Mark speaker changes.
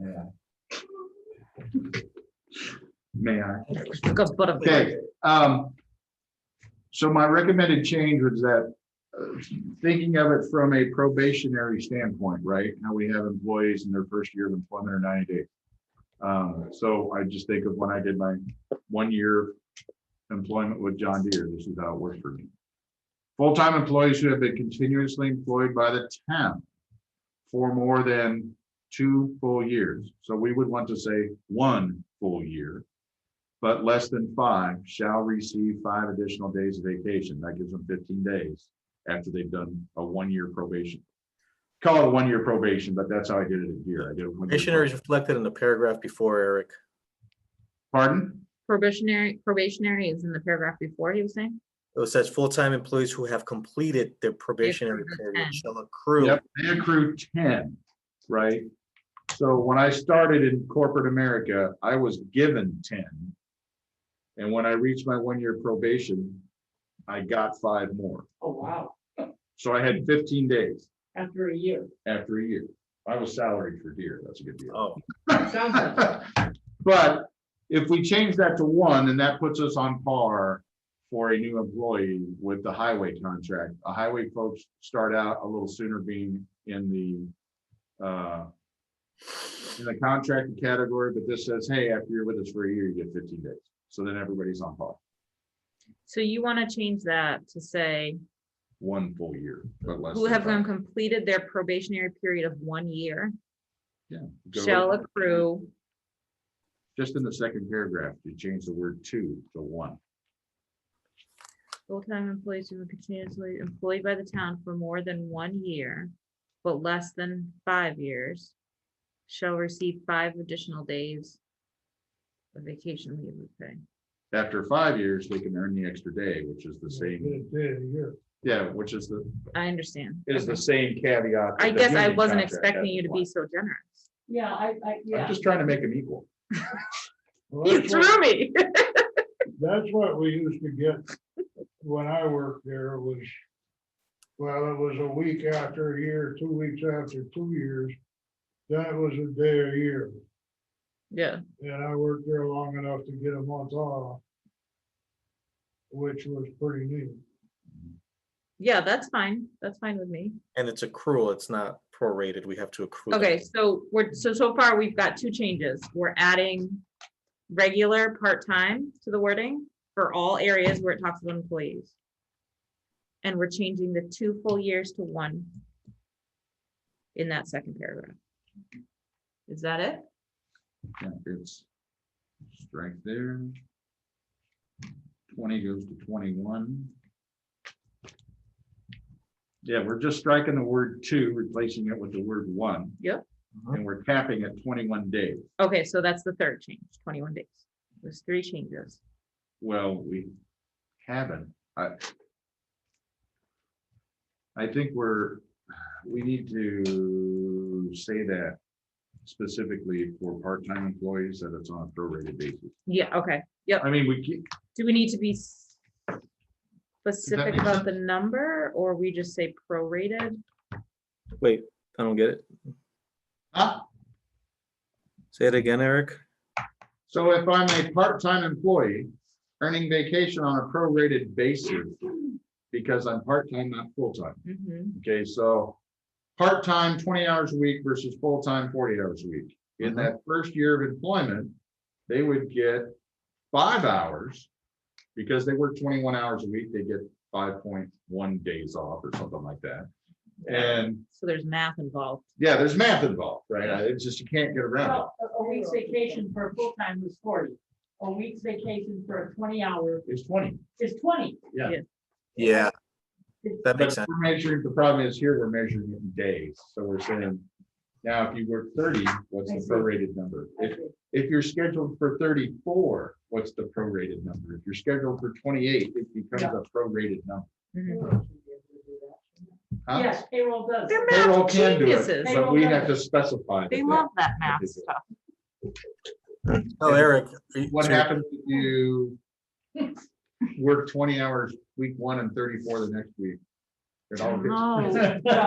Speaker 1: Yeah. May I?
Speaker 2: Goes bottom.
Speaker 1: Okay, um, so my recommended change was that, uh, thinking of it from a probationary standpoint, right? How we have employees in their first year of employment or ninety days. Um, so I just think of when I did my one-year employment with John Deere, this is how it worked for me. Full-time employees who have been continuously employed by the town for more than two full years. So we would want to say one full year but less than five shall receive five additional days of vacation. That gives them fifteen days after they've done a one-year probation. Call it one-year probation, but that's how I did it here. I did. a one-year
Speaker 3: Missionary is
Speaker 1: probation.
Speaker 3: reflected in the paragraph before, Eric.
Speaker 1: Pardon?
Speaker 2: Probationary, probationary is in the paragraph before he was saying.
Speaker 3: It says full-time employees who have completed their probationary
Speaker 2: the
Speaker 3: period
Speaker 2: 10.
Speaker 3: shall accrue.
Speaker 1: Yep, they accrue ten, right? So when I started in corporate America, I was given ten. And when I reached my one-year probation, I got five more.
Speaker 4: Oh, wow,
Speaker 1: So I had fifteen days
Speaker 4: after a year.
Speaker 1: after a year. I was salaried for deer. That's a good deal.
Speaker 3: Oh,
Speaker 4: Sounds like
Speaker 1: But if we change that to one, then that puts us on par for a new employee with the highway contract. The highway folks start out a little sooner being in the uh, in the contracted category, but this says, hey, after you're with us for a year, you get fifteen days. So then everybody's on par,
Speaker 2: So you want to change that to say,
Speaker 1: one full year, but less.
Speaker 2: who
Speaker 1: than
Speaker 2: have
Speaker 1: five.
Speaker 2: um, completed their probationary period of one year
Speaker 1: Go
Speaker 2: shall
Speaker 1: with-
Speaker 2: accrue.
Speaker 1: Just in the second paragraph, you change the word two to one.
Speaker 2: Full-time employees who are continuously employed by the town for more than one year, but less than five years, shall receive five additional days of vacation leave with pay.
Speaker 1: After five years, they can earn the extra day, which is the same, yeah, which is the,
Speaker 2: I understand.
Speaker 1: is the same caveat.
Speaker 2: I
Speaker 1: that the
Speaker 2: guess I
Speaker 1: union
Speaker 2: wasn't
Speaker 1: contract
Speaker 2: expecting
Speaker 1: has
Speaker 2: you to be so generous.
Speaker 4: Yeah, I, I,
Speaker 1: apply.
Speaker 4: yeah.
Speaker 1: I'm just trying to make them equal.
Speaker 5: Well,
Speaker 2: You
Speaker 5: That's what-
Speaker 2: threw me.
Speaker 5: that's what we used to get when I worked there was, well, it was a week after a year, two weeks after two years. That was a day a year,
Speaker 2: Yeah.
Speaker 5: and I worked there long enough to get a month off, which was pretty neat.
Speaker 2: Yeah, that's fine. That's fine with me.
Speaker 3: and it's accrual, it's not prorated. We have to accrue. that.
Speaker 2: Okay, so we're, so, so far, we've got two changes. We're adding regular part-time to the wording for all areas where it talks about employees. And we're changing the two full years to one in that second paragraph. Is that it?
Speaker 1: Yeah, It's strike there. Twenty goes to twenty-one. Yeah, we're just striking the word two, replacing it with the word one.
Speaker 2: Yep.
Speaker 1: And we're capping at twenty-one days.
Speaker 2: Okay, so that's the third change, twenty-one days. There's three changes.
Speaker 1: Well, we haven't, I. I think we're, we need to say that specifically for part-time employees that it's on a prorated basis.
Speaker 2: Yeah, okay.
Speaker 1: I mean, we keep,
Speaker 2: Do we need to be s- specific
Speaker 1: make
Speaker 2: about the number, or we just say prorated?
Speaker 3: Wait, I don't get it.
Speaker 1: ah,
Speaker 3: Say it again, Eric.
Speaker 1: so if I'm a part-time employee earning vacation on a prorated basis because I'm part-time, not full-time.
Speaker 2: Mhm.
Speaker 1: Okay, so part-time, twenty hours a week versus full-time, forty hours a week. In
Speaker 3: Mhm.
Speaker 1: that first year of employment, they would get five hours. Because they work twenty-one hours a week, they get five point one days off or something like that. And
Speaker 2: So there's math involved.
Speaker 1: yeah, there's math involved, right? I- It's just you can't get around.
Speaker 4: Well, a- A week's vacation for a full-time was forty. A week's vacation for a twenty-hour
Speaker 1: it. It's twenty.
Speaker 4: is twenty.
Speaker 1: Yeah.
Speaker 2: Yeah.
Speaker 3: Yeah. That
Speaker 1: But
Speaker 3: makes sense.
Speaker 1: we're measuring, the problem is here, we're measuring it in days. So we're saying, now if you work thirty, what's
Speaker 4: I
Speaker 1: the
Speaker 4: see.
Speaker 1: prorated number? If If you're scheduled for thirty-four, what's the prorated number? If you're scheduled for twenty-eight, it becomes
Speaker 4: Yeah.
Speaker 1: a prorated number.
Speaker 2: Mhm.
Speaker 1: huh?
Speaker 4: Yes, payroll does.
Speaker 2: They're math
Speaker 1: Payroll can do it,
Speaker 2: geniuses.
Speaker 1: but we have to specify. that
Speaker 2: They
Speaker 1: that-
Speaker 2: love that math
Speaker 1: do.
Speaker 2: stuff.
Speaker 3: Oh, Eric. are you-
Speaker 1: What
Speaker 3: so-
Speaker 1: happens if you work twenty hours week one and thirty-four the next week? It all gets
Speaker 2: Oh.
Speaker 4: Well,